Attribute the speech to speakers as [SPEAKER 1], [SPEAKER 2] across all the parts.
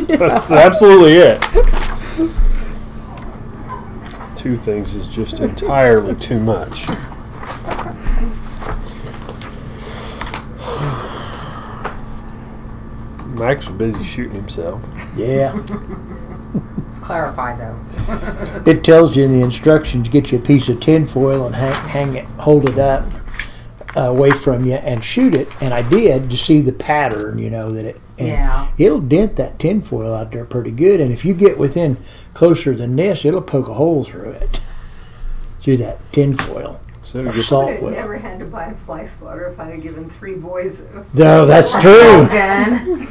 [SPEAKER 1] That's absolutely it. Two things is just entirely too much. Max was busy shooting himself.
[SPEAKER 2] Yeah.
[SPEAKER 3] Clarify though.
[SPEAKER 2] It tells you in the instructions, get you a piece of tinfoil and hang, hang it, hold it up uh, away from you and shoot it. And I did to see the pattern, you know, that it. And
[SPEAKER 3] Yeah.
[SPEAKER 2] It'll dent that tinfoil out there pretty good. And if you get within closer than this, it'll poke a hole through it. Through that tinfoil.
[SPEAKER 1] So
[SPEAKER 2] Or
[SPEAKER 1] you get-
[SPEAKER 2] salt
[SPEAKER 4] I'd have
[SPEAKER 2] will.
[SPEAKER 4] never had to buy a fly swatter if I'd have given three boys a
[SPEAKER 2] No, that's true.
[SPEAKER 3] Then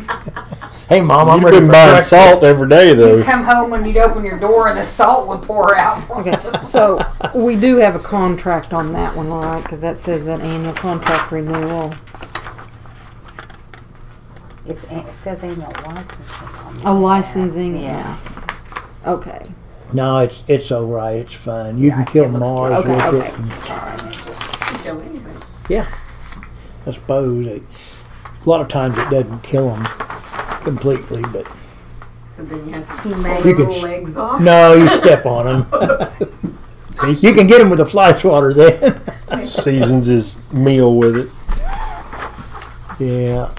[SPEAKER 2] Hey, Mom, I'm
[SPEAKER 1] You've
[SPEAKER 2] ready
[SPEAKER 1] been
[SPEAKER 2] for
[SPEAKER 1] buying
[SPEAKER 2] breakfast.
[SPEAKER 1] salt every day,
[SPEAKER 3] you'd
[SPEAKER 1] though.
[SPEAKER 3] come home and you'd open your door and the salt would pour out.
[SPEAKER 5] Okay, so we do have a contract on that one, all right, because that says that annual contract renewal.
[SPEAKER 3] It's, it says annual licensing.
[SPEAKER 5] A licensing,
[SPEAKER 3] Yeah.
[SPEAKER 5] yeah. Okay,
[SPEAKER 2] No, it's, it's all right. It's fine. You can kill Mars
[SPEAKER 5] good. Okay,
[SPEAKER 2] with
[SPEAKER 5] okay.
[SPEAKER 2] it. and-
[SPEAKER 4] kill anybody.
[SPEAKER 2] I suppose. It, a lot of times it doesn't kill them completely, but
[SPEAKER 4] So then you have to pull
[SPEAKER 2] You
[SPEAKER 4] their
[SPEAKER 2] could
[SPEAKER 4] little
[SPEAKER 2] sh-
[SPEAKER 4] legs off.
[SPEAKER 2] no, you step on them. You can get them with a fly swatter then.
[SPEAKER 1] He seasons his meal with it.
[SPEAKER 2] yeah.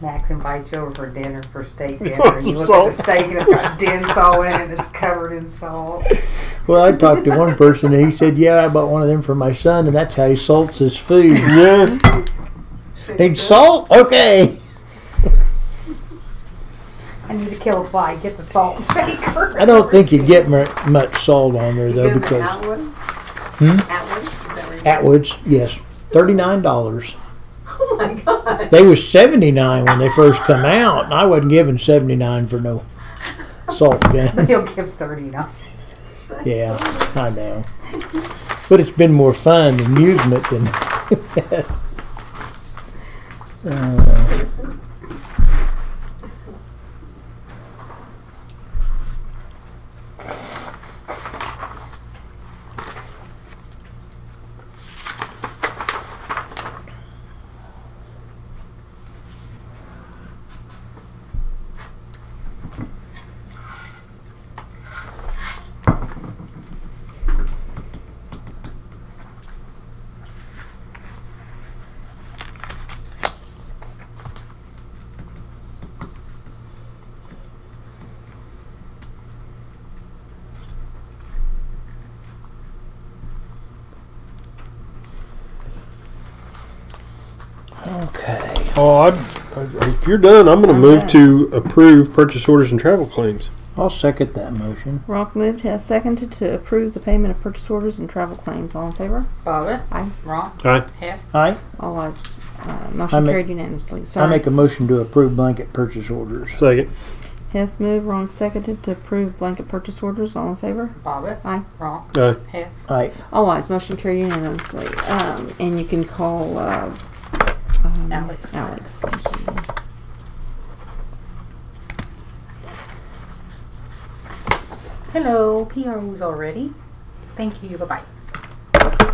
[SPEAKER 3] Max invites you over for dinner for steak dinner.
[SPEAKER 1] want
[SPEAKER 3] and
[SPEAKER 1] some
[SPEAKER 3] you look
[SPEAKER 1] salt?
[SPEAKER 3] at the steak and it's got dents all in it. It's covered in salt.
[SPEAKER 2] Well, I talked to one person and he said, "Yeah, I bought one of them for my son, and that's how he salts his food.
[SPEAKER 1] Yeah.
[SPEAKER 2] Need salt? Okay.
[SPEAKER 3] I need to kill a fly. Get the salt shaker.
[SPEAKER 2] I don't think you get mu- much salt on there though,
[SPEAKER 4] Give them
[SPEAKER 2] because
[SPEAKER 4] Atwood. Atwood? Is that where you-
[SPEAKER 2] Atwoods, yes, thirty-nine dollars.
[SPEAKER 4] Oh my god.
[SPEAKER 2] They was seventy-nine when they first come out, and I wasn't giving seventy-nine for no salt gun.
[SPEAKER 3] He'll give thirty now.
[SPEAKER 2] Yeah, I know. But it's been more fun, amusement than. Uh, okay.
[SPEAKER 1] Oh, I'd, I- if you're done, I'm going to move to approve purchase orders and travel claims.
[SPEAKER 2] I'll second that motion.
[SPEAKER 5] Rock moved, has seconded to approve the payment of purchase orders and travel claims. All in favor?
[SPEAKER 3] Bobbit.
[SPEAKER 5] Aye.
[SPEAKER 3] Wrong.
[SPEAKER 1] Aye.
[SPEAKER 3] Hess.
[SPEAKER 2] Aye.
[SPEAKER 5] All ayes, uh,
[SPEAKER 2] I
[SPEAKER 5] motion
[SPEAKER 2] make-
[SPEAKER 5] carried unanimously.
[SPEAKER 2] I
[SPEAKER 5] Sorry.
[SPEAKER 2] make a motion to approve blanket purchase orders.
[SPEAKER 1] Second.
[SPEAKER 5] Hess moved, Wrong seconded to approve blanket purchase orders. All in favor?
[SPEAKER 3] Bobbit.
[SPEAKER 5] Aye.
[SPEAKER 3] Wrong.
[SPEAKER 1] Aye.
[SPEAKER 3] Hess.
[SPEAKER 2] Aye.
[SPEAKER 5] All ayes, motion carried unanimously. Um, and you can call, uh, um,
[SPEAKER 3] Alex.
[SPEAKER 5] Alex, thank you.
[SPEAKER 3] Hello. PRO's already. Thank you. Bye bye.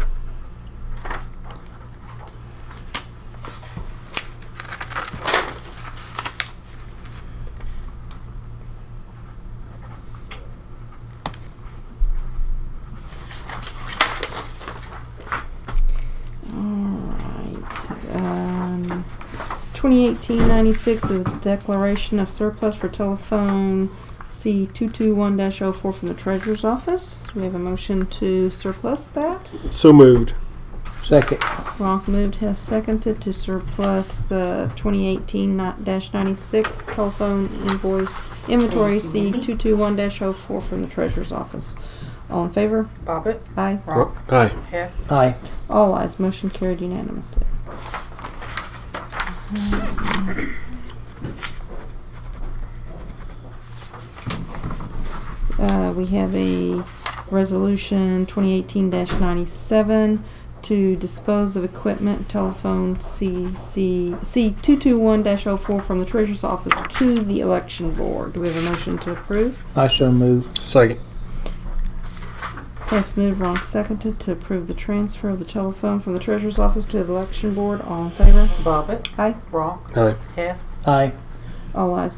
[SPEAKER 5] Alright, um, 2018-96 is declaration of surplus for telephone C221-04 from the treasurer's office. We have a motion to surplus that.
[SPEAKER 1] So moved.
[SPEAKER 2] Second.
[SPEAKER 5] Ronk moved, has seconded to surplus the 2018-96 telephone invoice inventory C221-04 from the treasurer's office. All in favor?
[SPEAKER 3] Bobbit.
[SPEAKER 5] Aye.
[SPEAKER 3] Wrong.
[SPEAKER 1] Aye.
[SPEAKER 3] Hess.
[SPEAKER 2] Aye.
[SPEAKER 5] All ayes, motion carried unanimously. Uh, we have a resolution twenty eighteen ninety-seven to dispose of equipment, telephone CC, C two-two-one 4 oh from the treasurer's office to the election board. Do we have a motion to approve?
[SPEAKER 2] I so move.
[SPEAKER 1] Second.
[SPEAKER 5] Hess moved, Ronk seconded to approve the transfer of the telephone from the treasurer's office to the election board. All in favor?
[SPEAKER 3] Bobbit.
[SPEAKER 5] Aye.
[SPEAKER 3] Wrong.
[SPEAKER 1] Aye.
[SPEAKER 3] Hess.
[SPEAKER 2] Aye.
[SPEAKER 5] All eyes